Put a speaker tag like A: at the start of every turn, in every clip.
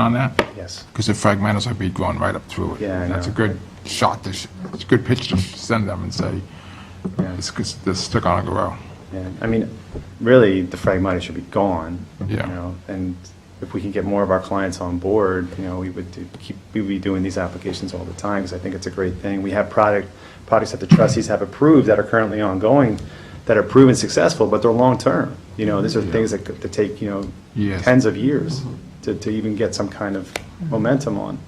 A: on that?
B: Yes.
A: Because the fragmentals would be going right up through it.
B: Yeah, I
A: That's a
B: know.
A: good shot to, sh- it's a good pitch to send them and say,
B: Yeah.
A: this, this took on a grow.
B: Yeah, I mean, really, the fragmenta should be gone. you
A: Yeah.
B: know, And if we can get more of our clients on board, you know, we would do- keep, we'd be doing these applications all the time, because I think it's a great thing. We have product, products that the trustees have approved that are currently ongoing, that are proven successful, but they're long-term. You know, these are things that, could- that take, you know,
A: Yes.
B: tens of years to, to even get some kind of momentum on.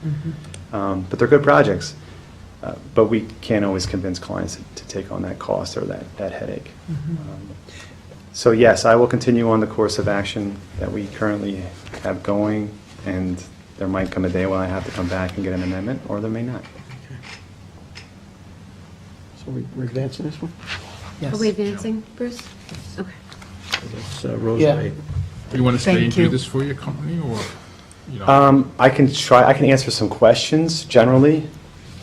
B: Um, But they're good projects. Uh, But we can't always convince clients to take on that cost or that, that headache. Um, So yes, I will continue on the course of action that we currently have going, and there might come a day when I have to come back and get an amendment, or there may not.
C: So we- we're advancing this one?
D: Are we advancing, Bruce? Okay.
C: That's uh, Rosemary.
A: Do you want to stay and
D: Thank
A: do
D: you.
A: this for your company, or, you know?
B: Um, I can try, I can answer some questions generally,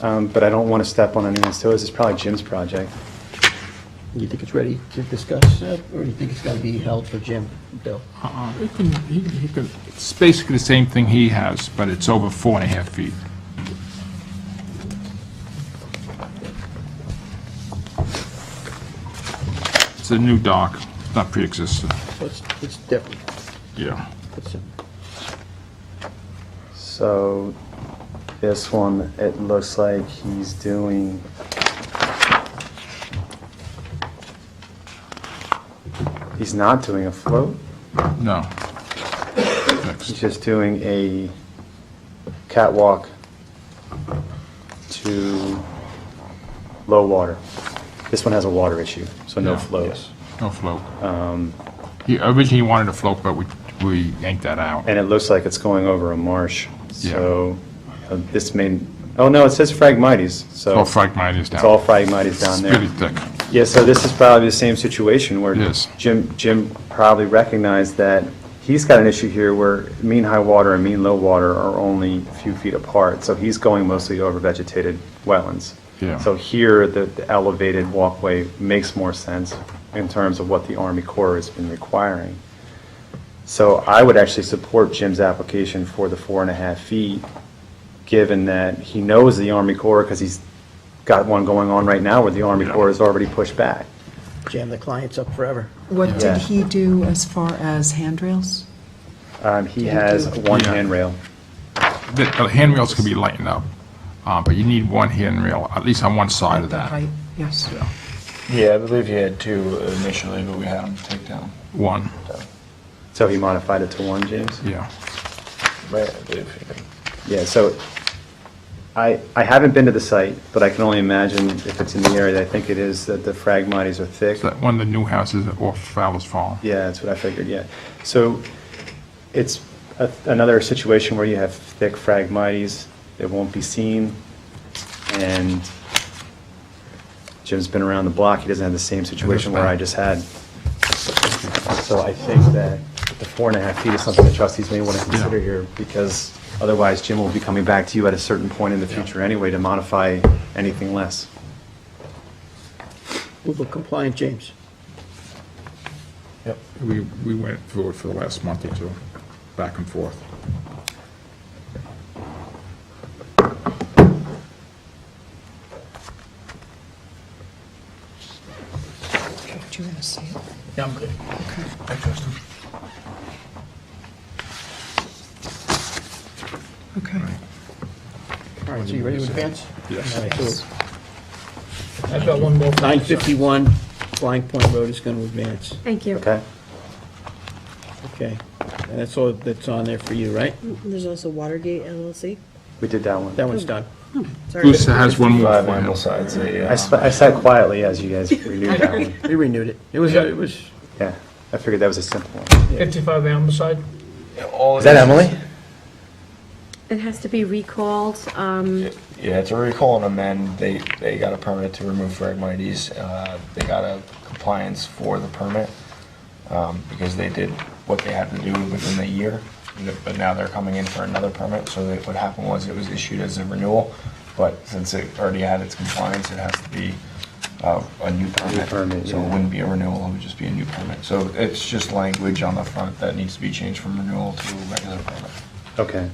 B: um, but I don't want to step on anyone's toes. It's probably Jim's project.
C: You think it's ready to discuss, uh, or you think it's got to be held for Jim, Bill?
A: Uh-uh, he can- he- he can- It's basically the same thing he has, but it's over four and a half feet. It's a new dock, not pre-existing,
C: So it's, it's different.
A: yeah.
C: It's, uh,
B: So this one, it looks like he's doing. He's not doing a float.
A: No.
B: He's
A: Next.
B: just doing a catwalk to low water. This one has a water issue, so no
A: Yeah.
B: flows.
A: No float.
B: Um,
A: He originally wanted a float, but we, we yanked that out.
B: And it looks like it's going over a marsh.
A: Yeah.
B: So uh, this may, oh no, it says Phragmites, so
A: Well, Phragmites
B: it's all
A: down.
B: Phragmites down
A: It's
B: there.
A: really thick.
B: Yeah, so this is probably the same situation where
A: Yes.
B: Jim, Jim probably recognized that he's got an issue here where mean high water and mean low water are only a few feet apart, so he's going mostly over vegetated wetlands.
A: Yeah.
B: So here, the the elevated walkway makes more sense in terms of what the Army Corps has been requiring. So I would actually support Jim's application for the four and a half feet, given that he knows the Army Corps, because he's got one going on right now where the Army
A: Yeah.
B: Corps has already pushed back.
C: Jam the clients up forever.
E: What
B: Yeah.
E: did he do as far as handrails?
B: Um, He has one
A: Yeah.
B: handrail.
A: The the handrails could be lightened up, uh, but you need one handrail, at least on one side of
E: The
A: that.
E: height, Yes.
F: Yeah, I believe he had two initially, but we had him take down.
A: One,
B: So he modified it to one, James?
A: yeah.
F: Right, I believe he did.
B: Yeah, so I, I haven't been to the site, but I can only imagine if it's in the area that I think it is, that the fragmites are thick.
A: Is that one of the new houses off Fowler's Farm?
B: Yeah, that's what I figured, yeah. So it's a- another situation where you have thick phragmites, it won't be seen, and Jim's been around the block, he doesn't have the same situation where I just had. So I think that the four and a half feet is something the trustees may want to consider here, because otherwise Jim will be coming back to you at a certain point in the future anyway to modify anything less.
C: We'll go compliant, James.
A: We, we went through it for the last month or two, back and forth.
E: Do you want to see it?
C: Yeah, I'm good.
E: Okay.
C: All right, so you ready to advance?
A: Yes.
C: All right, so
G: I've got one more.
C: 951 Flying Point Road is going to advance.
D: Thank you.
B: Okay?
C: Okay. And that's all that's on there for you, right?
H: There's also Watergate LLC.
B: We did that one.
C: That one's done.
H: Sorry.
A: Bruce has one more
F: Five
A: for him.
F: ample sides, a,
B: I
F: uh,
B: sp- I sat quietly as you guys renewed that one.
C: We renewed it. It was, it was,
B: Yeah, I figured that was a simple one.
G: 55 Ambleside.
F: all
B: Is that
F: it
B: Emily?
D: It has to be recalled, um,
F: Yeah, to recall and amend, they, they got a permit to remove Phragmites. Uh, they got a compliance for the permit, um, because they did what they had to do within the year. But now they're coming in for another permit, so that what happened was it was issued as a renewal, but since it already had its compliance, it has to be, uh, a new permit.
B: permit,
F: So it
B: yeah.
F: wouldn't be a renewal, it would just be a new permit. So it's just language on the front that needs to be changed from renewal to regular permit.
B: Okay.